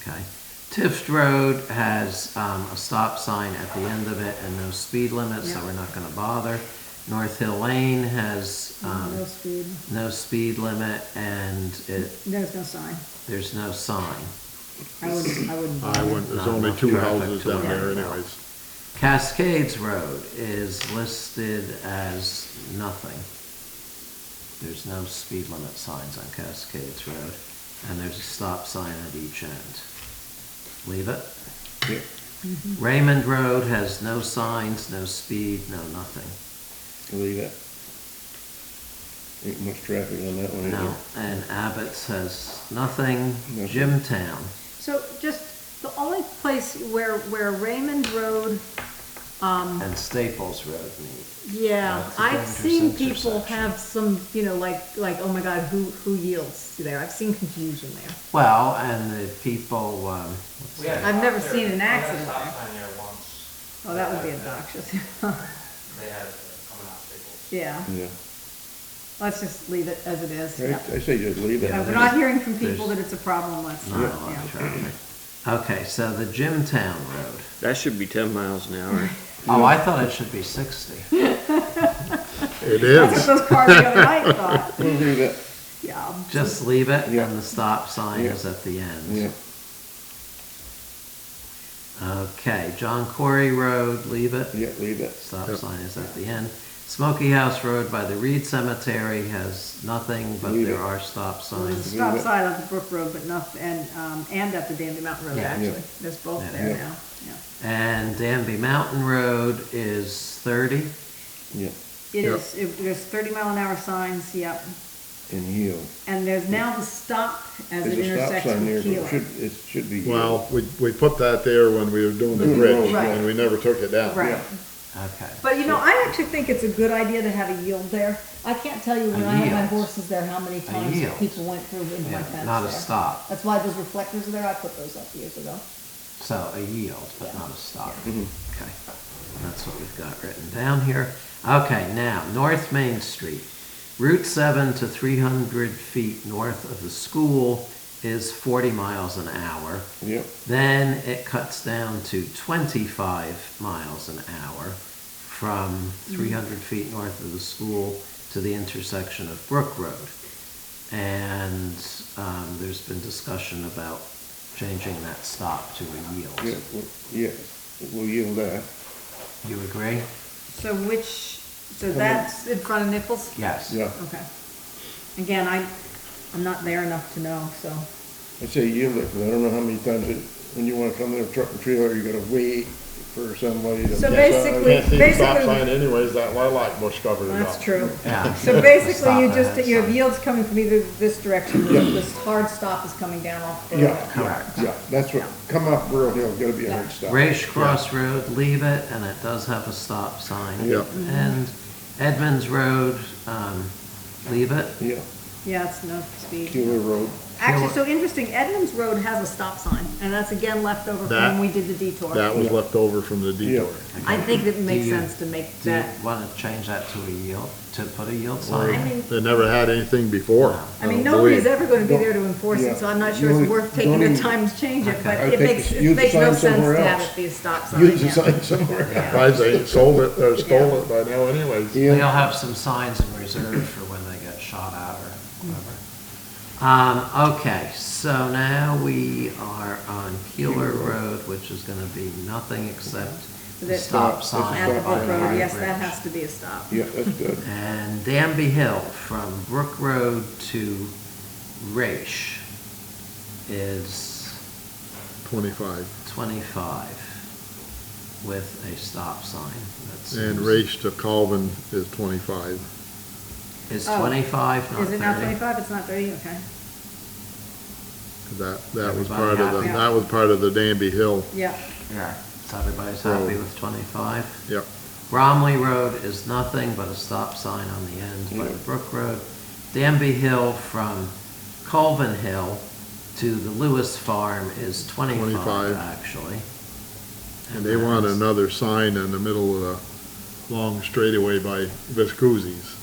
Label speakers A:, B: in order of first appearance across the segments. A: Okay. Tift Road has um, a stop sign at the end of it and no speed limit, so
B: Yeah.
A: we're not gonna bother. North Hill Lane has
B: No
A: um,
B: speed,
A: no speed limit and it,
B: there's no sign.
A: there's no sign.
B: I wouldn't, I wouldn't.
C: I wouldn't, there's
A: Not
C: only
A: enough
C: two
A: traffic
C: houses
A: to
C: down there
A: worry about.
C: anyways.
A: Cascades Road is listed as nothing. There's no speed limit signs on Cascades Road, and there's a stop sign at each end. Leave it. Raymond Road has no signs, no speed, no nothing.
D: Leave it. Ain't much traffic on that one either.
A: No, and Abbott's has nothing.
D: Nothing.
A: Jimtown,
B: So just, the only place where, where Raymond Road, um,
A: and Staples Road meet.
B: yeah,
A: Lots of
B: I've seen
A: intersections.
B: people have some, you know, like, like, oh my God, who, who yields there? I've seen confusion there.
A: Well, and the people, um, what's
E: We had a
A: that?
B: I've never
E: stop
B: seen an
E: there- we had a
B: accident
E: stop
B: there.
E: sign there once.
B: Oh, that would be
E: Like
B: obnoxious.
E: They had, uh, coming out Staples.
B: Yeah,
D: Yeah.
B: let's just leave it as it is.
D: I, I say just leave it.
B: Uh, We're
A: Yeah.
B: not hearing from people that it's a problem, let's,
A: not a lot
B: yeah.
A: of traffic. Okay, so the Jimtown Road.
F: That should be ten miles an hour.
A: Oh, I thought it should be sixty.
C: It
B: That's
C: is.
B: what those cars the other night thought,
D: We'll leave it,
B: yeah.
A: Just leave it
D: Yeah.
A: and the stop sign is at the end.
D: yeah.
A: Okay, John Quarry Road, leave it.
D: Yeah, leave it.
A: Stop
C: Yeah.
A: sign is at the end. Smoky House Road by the Reed Cemetery has nothing, but
D: Leave
A: there
D: it.
A: are stop
B: There's a
A: signs.
B: stop sign on the Brook Road, but not, and, um, and at the Dandy Mountain Road,
A: Yeah.
B: actually,
D: Yeah.
B: there's both
A: Yeah.
B: there
D: Yeah.
B: now, yeah.
D: Mm-hmm.
A: And Danby Mountain Road is thirty.
D: Yeah,
B: It
C: Yeah.
B: is, it- there's thirty mile an hour signs, yep,
D: and yield.
B: and there's now the stop as it
D: There's a stop
B: intersects
D: sign there,
B: with
D: but it
B: Keeler.
D: should, it should be. yield.
C: Well, we, we put that there when we were doing the bridge,
B: Right.
C: and we never took it down.
B: Right,
A: Okay.
B: but you know, I actually think it's a good idea to have a yield there, I can't tell you when I had my
A: yield.
B: horses there, how many times
A: yield.
B: people went through into my
A: Yeah,
B: fence there.
A: Not a stop,
B: That's why those reflectors are there, I put those up years ago.
A: so a yield, but not a stop. Okay, that's what we've got written down here. Okay, now, North Main Street. Route seven to three hundred feet north of the school is forty miles an hour.
D: Yep,
A: Then it cuts down to 25 miles an hour from
B: Mm.
A: 300 feet north of the school to the intersection of Brook Road. And um, there's been discussion about changing that stop to a
D: yeah,
A: yield.
D: well, yeah, we'll yield that.
A: You agree?
B: So which, so
D: Come in.
B: that's in front of Nichols?
A: Yes.
D: Yeah,
B: Okay. Again, I, I'm not there enough to know, so.
D: I say yield it, 'cause I don't know how many times it, when you wanna come there, truck and trailer, you gotta wait for somebody to.
B: So
D: Yeah.
C: I
B: basically-
C: can't see the stop
B: Basically-
C: sign anyways, that lilac bush covered it up.
B: That's true.
A: Yeah.
B: So basically, you
A: Stop
B: just,
A: at
B: you have
A: sign.
B: yields coming from either this direction, this hard stop is coming down off the
D: Yeah,
B: road.
A: Correct.
D: Yeah, that's what, come up Burl Hill, gotta be a
B: Yeah.
D: hard stop.
A: Raish Cross Road, leave it, and it does have a stop sign.
C: Yeah.
A: And Edmonds Road, um, leave it.
D: Yeah,
B: Yeah, it's no speed.
D: Keeler Road,
B: Actually, so interesting, Edmonds Road has a stop sign, and that's again left over from when
C: That-
B: we did the detour.
C: That was left over from the detour.
B: I think that it makes
A: Do you-
B: sense to make
A: Do you
B: that,
A: want to change that to a yield, to put a yield sign?
B: I mean,
C: They never had anything before.
B: I mean,
C: don't
B: nobody's
C: believe.
B: ever gonna be
D: Uh, Don't-
B: there to enforce
D: yeah.
B: it, so I'm not
D: You
B: sure it's
D: only-
B: worth taking
D: don't
B: the
D: even-
B: time to change it,
A: Okay.
B: but
D: I
B: it
D: think
B: makes,
D: use
B: it
D: the
B: makes no
D: sign
B: sense
D: somewhere
B: to have
D: else.
B: it be a stop sign.
D: use the
B: yeah.
D: sign somewhere else.
C: Guys, they sold it, or stole it by now anyways.
A: They'll
D: Yeah,
A: have some signs in reserve for when they get shot at or whatever. Um, okay, so now we are on Keeler Road, which is gonna be nothing except the
B: That-
A: stop
D: That's a
A: sign.
B: At the
A: by
B: Brook Road,
A: High
B: yes, that
A: Bridge.
B: has to be a stop.
D: yeah, that's good.
A: And Danby Hill from Brook Road to Raish is
C: Twenty-five.
A: twenty-five with a stop sign. That's
C: And race to Calvin is twenty-five.
A: Is
B: Oh.
A: twenty-five, not
B: Is it not
A: thirty?
B: twenty-five? It's not thirty, okay.
C: That, that was
A: Everybody
C: part of the,
B: happy?
C: that was part of the Danby Hill,
B: Yeah,
A: Yeah, so everybody's happy with twenty-five?
C: yep.
A: Bromley Road is nothing but a stop sign on the end by the Brook Road. Danby Hill from Colvin Hill to the Lewis Farm is 25,
C: 25.
A: actually.
C: And they want
A: that's-
C: another sign in the middle of the long straightaway by Viscuzzi's.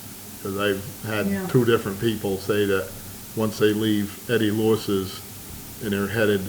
C: Cause I've
B: Yeah.
C: had two different people say that once they leave Eddie Lewis's and they're headed